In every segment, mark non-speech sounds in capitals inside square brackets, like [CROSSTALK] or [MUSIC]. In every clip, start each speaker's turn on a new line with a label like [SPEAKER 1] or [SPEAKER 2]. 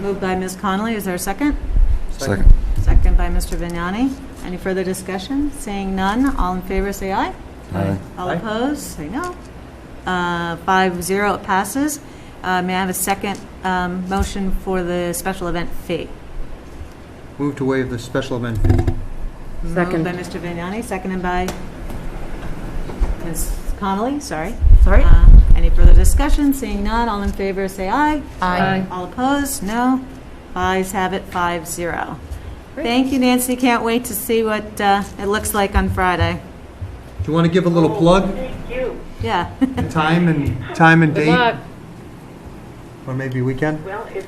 [SPEAKER 1] Moved by Ms. Connolly, is there a second?
[SPEAKER 2] Second.
[SPEAKER 1] Second by Mr. Vignani. Any further discussion? Seeing none, all in favor, say aye.
[SPEAKER 2] Aye.
[SPEAKER 1] All
[SPEAKER 3] Aye.
[SPEAKER 1] opposed, say no. Uh, Five zero, it passes. Uh, May I have a second um, motion for the special event fee?
[SPEAKER 3] Move to waive the special event fee.
[SPEAKER 1] Moved
[SPEAKER 4] Second.
[SPEAKER 1] by Mr. Vignani, seconded by Ms. Connolly, sorry.
[SPEAKER 4] Sorry?
[SPEAKER 1] Uh, Any further discussion? Seeing none, all in favor, say aye.
[SPEAKER 4] Aye.
[SPEAKER 1] All opposed? No. Ayes have it, five zero. Thank you, Nancy. Can't wait to see what uh, it looks like on Friday.
[SPEAKER 3] Do you want to give a little plug,
[SPEAKER 5] Thank you.
[SPEAKER 1] Yeah. [LAUGHS]
[SPEAKER 3] time and, time and
[SPEAKER 4] Good
[SPEAKER 3] date?
[SPEAKER 4] luck.
[SPEAKER 3] Or maybe weekend?
[SPEAKER 5] Well, if,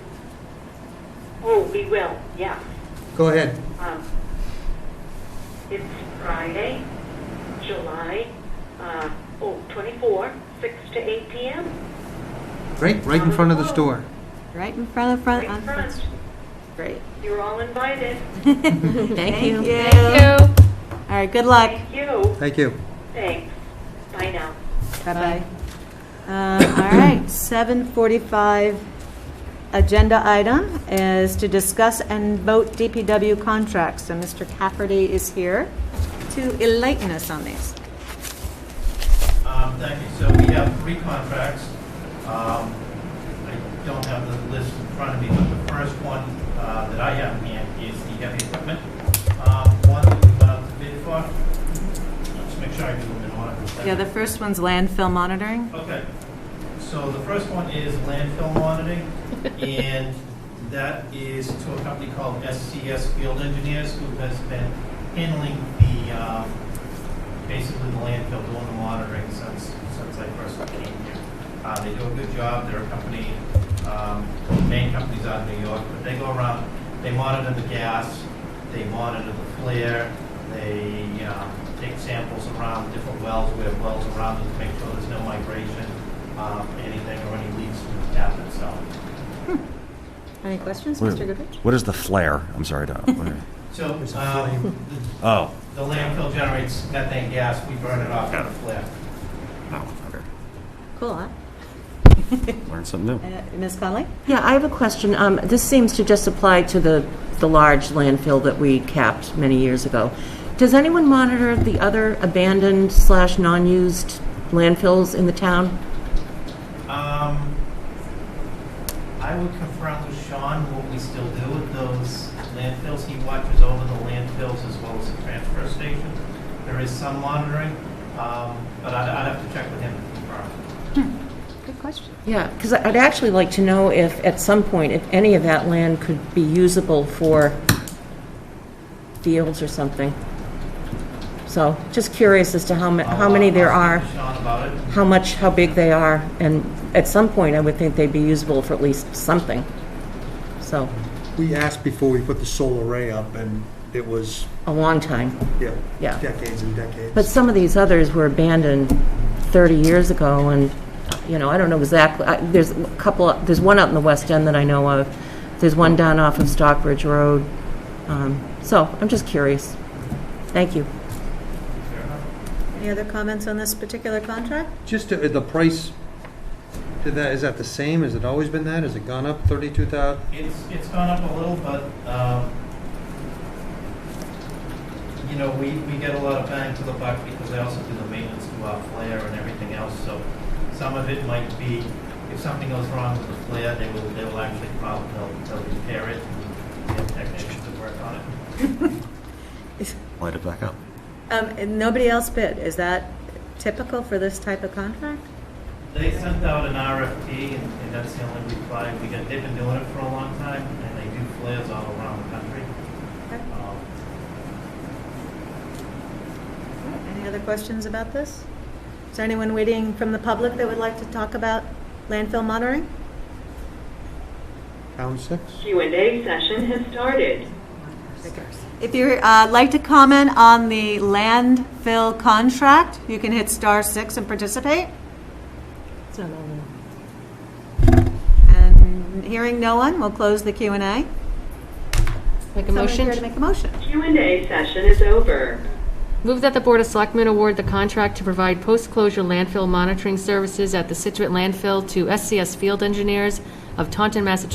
[SPEAKER 5] oh, we will, yeah.
[SPEAKER 3] Go ahead.
[SPEAKER 5] Um, It's Friday, July, uh, oh, 24, 6 to 8
[SPEAKER 4] Uh-huh.
[SPEAKER 5] p.m.
[SPEAKER 3] Right, right in front of the store.
[SPEAKER 1] Right in front of front,
[SPEAKER 5] Right in
[SPEAKER 1] on front.
[SPEAKER 5] front.
[SPEAKER 1] Great.
[SPEAKER 5] You're all invited.
[SPEAKER 1] Thank you. All
[SPEAKER 4] Thank you.
[SPEAKER 1] right, good luck.
[SPEAKER 5] Thank you.
[SPEAKER 3] Thank you.
[SPEAKER 5] Thanks. Bye now.
[SPEAKER 1] Bye-bye. Um, All right, 7:45 agenda item is to discuss and vote DPW contracts. So Mr. Cafferty is here to enlighten us on these.
[SPEAKER 6] Um, Thank you. So we have three contracts. Um, I don't have the list in front of me, but the first one uh, that I have in hand is the heavy equipment. Um, One that we went out to bid for. Let's make sure I do them in order.
[SPEAKER 1] Yeah, the first one's landfill monitoring.
[SPEAKER 6] Okay, so the first one is landfill monitoring, and that is to a company called SCS Field Engineers, who has been handling the, um, basically the landfill, doing the monitoring since, since I first came here. Uh, They do a good job, they're a company, um, main company's out of New York, but they go around, they monitor the gas, they monitor the flare, they um, take samples around different wells, we have wells around them to make sure there's no migration, um, anything or any leaks from the tap itself.
[SPEAKER 1] Any questions,
[SPEAKER 2] Wait,
[SPEAKER 1] Mr. Goodrich?
[SPEAKER 2] What is the flare? I'm sorry. to-
[SPEAKER 6] So um, the-
[SPEAKER 2] Oh,
[SPEAKER 6] the landfill generates methane gas, we burn it off with a flare.
[SPEAKER 1] Cool, huh?
[SPEAKER 2] learned something new.
[SPEAKER 1] Uh, Ms. Conley?
[SPEAKER 4] Yeah, I have a question. Um, This seems to just apply to the, the large landfill that we capped many years ago. Does anyone monitor the other abandoned slash non-used landfills in the town?
[SPEAKER 6] Um, I would confirm with Sean what we still do with those landfills. He watches over the landfills as well as the transfer station. There is some monitoring, um, but I'd, I'd have to check with him to confirm.
[SPEAKER 1] Good question.
[SPEAKER 4] Yeah, because I'd actually like to know if, at some point, if any of that land could be usable for fields or something. So, just curious as to how, ma- how
[SPEAKER 6] I'll-
[SPEAKER 4] many
[SPEAKER 6] I'll
[SPEAKER 4] there
[SPEAKER 6] speak
[SPEAKER 4] are.
[SPEAKER 6] to Sean about it.
[SPEAKER 4] how much, how big they are, and at some point, I would think they'd be usable for at least something. So,
[SPEAKER 2] We asked before we put the solar array up, and it was,
[SPEAKER 4] a long time,
[SPEAKER 2] yeah,
[SPEAKER 4] yeah.
[SPEAKER 2] decades and decades.
[SPEAKER 4] But some of these others were abandoned 30 years ago, and, you know, I don't know exactly, I- there's a couple, there's one out in the West End that I know of, there's one down off of Stockbridge Road, Um, so I'm just curious. Thank you.
[SPEAKER 6] Fair enough.
[SPEAKER 1] Any other comments on this particular contract?
[SPEAKER 3] Just uh, the price, did that, is that the same? Has it always been that? Has it gone up 32,000?
[SPEAKER 6] It's, it's gone up a little, but, um, you know, we, we get a lot of bang for the buck because I also do the maintenance to our flare and everything else, so some of it might be, if something goes wrong with the flare, they will, they will actually probably, they'll, they'll repair it and get technicians to work on it.
[SPEAKER 2] Light it back up.
[SPEAKER 1] Um, and Nobody else bid. Is that typical for this type of contract?
[SPEAKER 6] They sent out an RFP, and and that's the only reply we got. They've been doing it for a long time, and they do flares all around the country.
[SPEAKER 1] Okay.
[SPEAKER 6] Um,
[SPEAKER 1] Any other questions about this? Is there anyone waiting from the public that would like to talk about landfill monitoring?
[SPEAKER 3] Pound six?
[SPEAKER 5] Q&A session has started.
[SPEAKER 1] If you'd uh, like to comment on the landfill contract, you can hit star six and participate. And hearing no one, we'll close the Q and A.
[SPEAKER 7] Make a
[SPEAKER 1] Someone here to
[SPEAKER 7] motion.
[SPEAKER 1] make a motion.
[SPEAKER 5] Q&A session is over.
[SPEAKER 7] Move that the Board of Selectmen award the contract to provide post-closure landfill monitoring services at the Situate landfill to SCS Field Engineers of Taunton, Massachusetts